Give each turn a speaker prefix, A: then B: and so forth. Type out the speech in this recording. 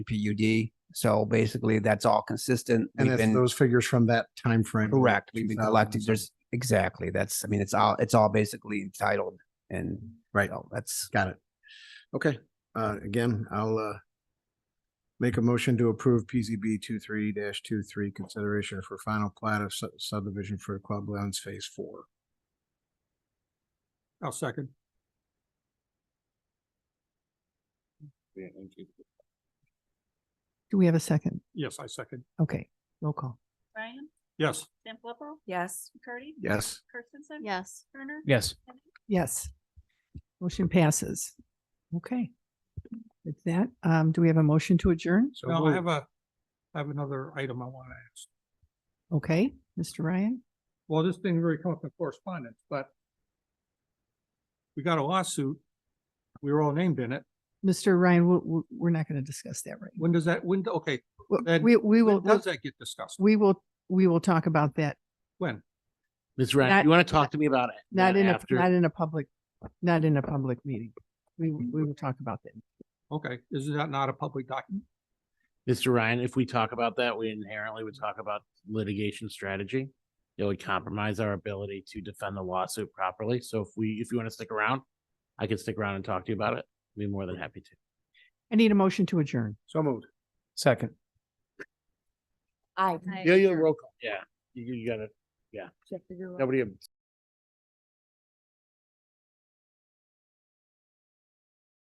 A: PUD. So basically, that's all consistent.
B: And
A: We've
B: that's
A: been-
B: those figures from that time frame.
A: Correct. We've been collecting, there's, exactly, that's, I mean, it's all, it's all basically entitled and.
B: Right.
A: so That's,
B: Got it. Okay, uh, again, I'll, uh, make a motion to approve PZB two three dash two three consideration for final plat of sub- subdivision for Club Lounge Phase Four.
C: I'll second.
D: Do we have a second?
C: Yes, I second.
D: Okay, roll call.
E: Ryan,
C: Yes.
E: Sam Flippo,
F: Yes.
E: McCarty.
B: Yes.
E: Kirstensen.
F: Yes.
E: Turner.
G: Yes.
D: Yes. Motion passes. Okay. With that, um, do we have a motion to adjourn?
B: So
C: Now, I
B: moved.
C: have a, I have another item I want to ask.
D: Okay, Mr. Ryan?
C: Well, this didn't really come up in correspondence, but we got a lawsuit. We were all named in it.
D: Mr. Ryan, we- we, we're not going to discuss that right.
C: When does that, when, okay,
D: now.
C: then
D: We, we will,
C: when does that get discussed?
D: we will, we will talk about that,
C: When?
G: Ms.
D: Not-
G: Ryan, you want to talk to me about it? uh,
D: not in a,
G: after?
D: not in a public, not in a public meeting. We, we will talk about that.
C: Okay, is that not a public document?
G: Mr. Ryan, if we talk about that, we inherently would talk about litigation strategy. It would compromise our ability to defend the lawsuit properly. So if we, if you want to stick around, I can stick around and talk to you about it. I'd Be more than happy to.
D: I need a motion to adjourn.
B: So moved.
G: Second.
F: I.
G: Yeah, yeah, roll call. Yeah, you, you gotta, yeah. Nobody.